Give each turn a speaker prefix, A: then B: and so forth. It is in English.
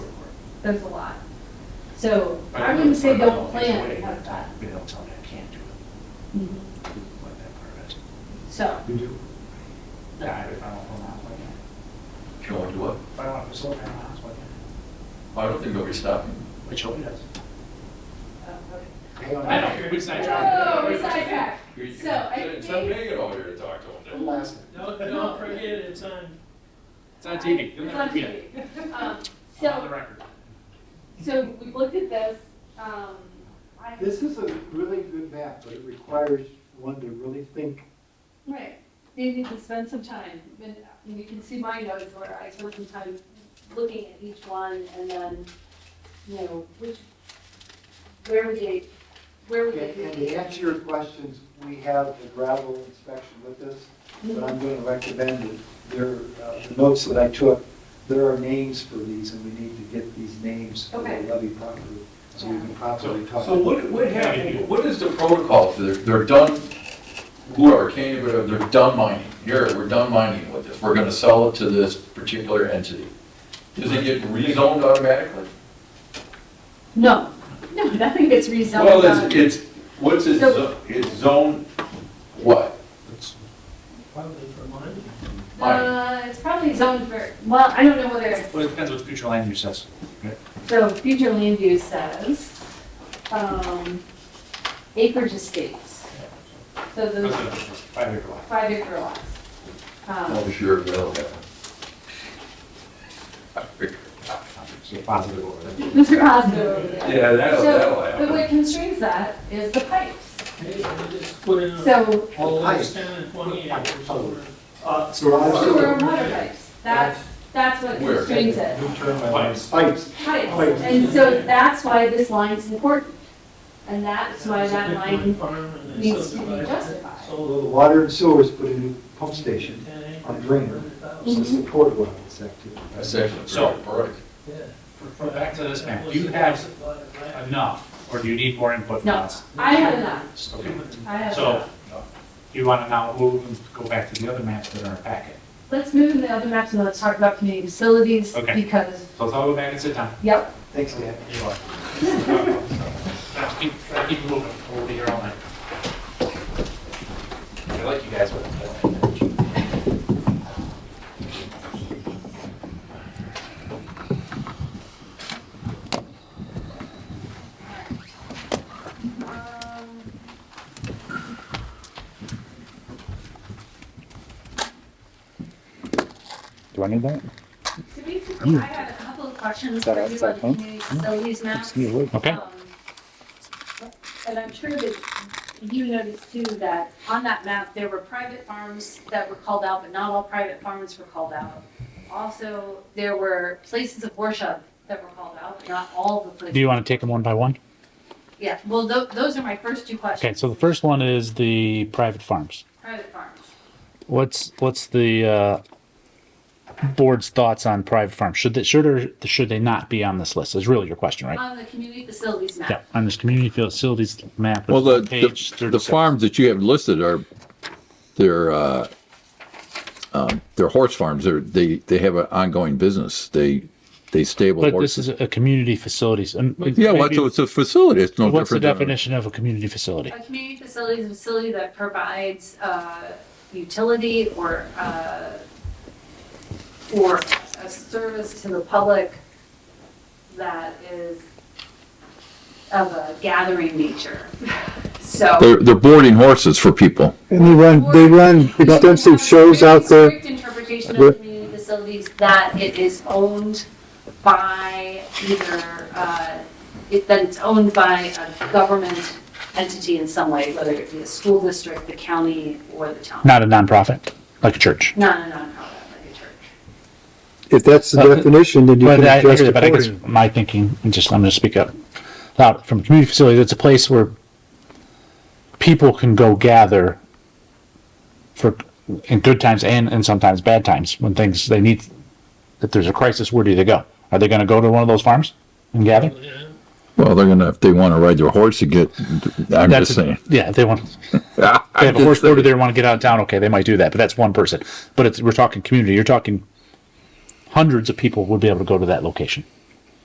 A: That's a lot. So
B: But
A: I
B: know
A: wouldn't
B: it's
A: say
B: not
A: don't
B: always
A: plan uh,
B: way,
A: to have that.
B: We don't tell you I can't do it,
A: Mhm.
B: like that part of it.
A: So,
C: We do.
B: Yeah, if I don't want to, why can't
D: You don't want to do
B: I?
D: what?
B: If I don't want to slow down, why can't
D: I don't think they'll be stopping.
B: I? But Shelby does.
A: oh, okay.
C: Hang on.
B: I know, we sidetracked.
A: Whoa, we sidetracked.
D: You-
A: So I
D: It's not
A: think,
D: Megan over here to talk to them.
C: I'm lasting.
E: Don't, don't forget it's on.
B: It's on TV. You'll
A: it's
B: never
A: on
B: forget it.
A: TV. Um,
B: On the
A: So,
B: record.
A: so we looked at this, um, I,
C: This is a really good map, but it requires one to really think.
A: right, they need to spend some time. And you can see my notes where I spent some time looking at each one and then, you know, which, where would they, where would
C: And
A: they?
C: and to answer your questions, we have the gravel inspection with us, but I'm going to recommend that there, uh, the notes that I took, there are names for these, and we need to get these names for the
A: Okay.
C: levy properly, so we can properly talk.
D: So what, what happened, what is the protocol for, the- they're done, whoever came, whatever, they're done mining. Here, we're done mining with this, we're gonna sell it to this particular entity. Does it get rezoned automatically?
A: No, no, nothing gets rezoned.
F: Well,
A: on-
F: it's, it's, what's its,
A: So-
F: zo- its zone,
D: What?
E: Probably for mine.
D: Mine.
A: Uh, it's probably zoned for, well, I don't know whether, it's-
B: Well, it depends what future land use says.
A: so future land use says, um, acreage estates. So
B: That's
A: those
B: what it is. Five acre lot.
A: five acre lots. Um,
D: Oh, sure, they'll have it.
B: So positive over there.
A: Mr. Osborne over there.
F: yeah, that'll,
A: So,
F: that'll
A: but
F: happen.
A: what constrains that is the pipes.
E: Hey, we just put in a-
A: So
E: all those ten and twenty acres over.
C: Uh,
A: sewer and water pipes, that's, that's what
D: Where?
A: constrains it.
C: New term, I like.
B: Pipes.
C: Pipes.
A: Pipes. And so that's why this line's important. And that's why that line needs to be justified.
E: Sold
C: Although the water and sewers put a new pump station,
E: ten acres.
C: On Greener.
E: $100,000.
C: to support water this activity.
D: That's actually a
B: So-
D: pretty product.
E: Yeah.
B: For- Back to this map. Do you have enough, or do you need more input from
A: No.
B: us?
A: I have enough,
B: Okay.
A: I have
B: So,
A: enough.
B: you want to now move and go back to the other maps that are in our packet?
A: Let's move to the other maps and let's talk about community facilities.
B: Okay.
A: Because,
B: So let's all go back and sit down.
A: yep,
C: Thanks, Dan.
B: You are. Now, keep, try to keep moving, we'll be here all night. I like you guys with it.
G: Do I need that?
A: so basically, I had a couple of questions for
G: That
A: you on
G: outside
A: the
G: phone?
A: community facilities maps.
G: Excuse me.
B: Okay.
A: Um, And I'm sure that you noticed too that on that map, there were private farms that were called out, but not all private farms were called out. Also, there were places of worship that were called out, but not all the places.
H: Do you want to take them one by one?
A: Yeah, well, tho- those are my first two questions.
H: Okay, so the first one is the private farms.
A: Private farms.
H: What's what's the uh, board's thoughts on private farms? Should they, should or should they not be on this list? Is really your question, right?
A: On the community facilities map.
H: yeah, on this community facilities map.
I: Well, the,
H: which is page
I: the- the
H: 36.
I: farms that you have listed are, they're, uh, um, they're horse farms. They're, they, they have an ongoing business. They, they stable
H: But this is
I: horses.
H: a community facilities. and
I: Yeah, well,
H: maybe-
I: it's a- it's a facility. It's no different.
H: what's the
I: than a-
H: definition of a community facility?
A: A community facility is a facility that provides uh, utility or, uh, or a service to the public that is of a gathering nature. So.
I: They're, they're boarding horses for people.
G: And they run, they run extensive shows out there.
A: Strict interpretation of community facilities that it is owned by either, uh, it- that it's owned by a government entity in some way, whether it be a school district, the county, or the town.
H: Not a nonprofit, like a church.
A: Not a nonprofit, like a church.
G: If that's the
H: Uh,
G: definition, then you
H: But
G: can
H: I,
G: adjust
H: but I guess
G: accordingly.
H: my thinking, and just, I'm gonna speak up loud, from community facilities, it's a place where people can go gather for, in good times and, and sometimes bad times, when things, they need, if there's a crisis, where do they go? Are they gonna go to one of those farms and gather?
E: Yeah.
I: Well, they're gonna, if they wanna ride their horse to get, I'm
H: That's
I: just saying.
H: Yeah, if they want, they
I: I'm
H: have a horse boarded
I: just saying.
H: there, and wanna get out of town, okay, they might do that, but that's one person. But it's, we're talking community, you're talking hundreds of people would be able to go to that location.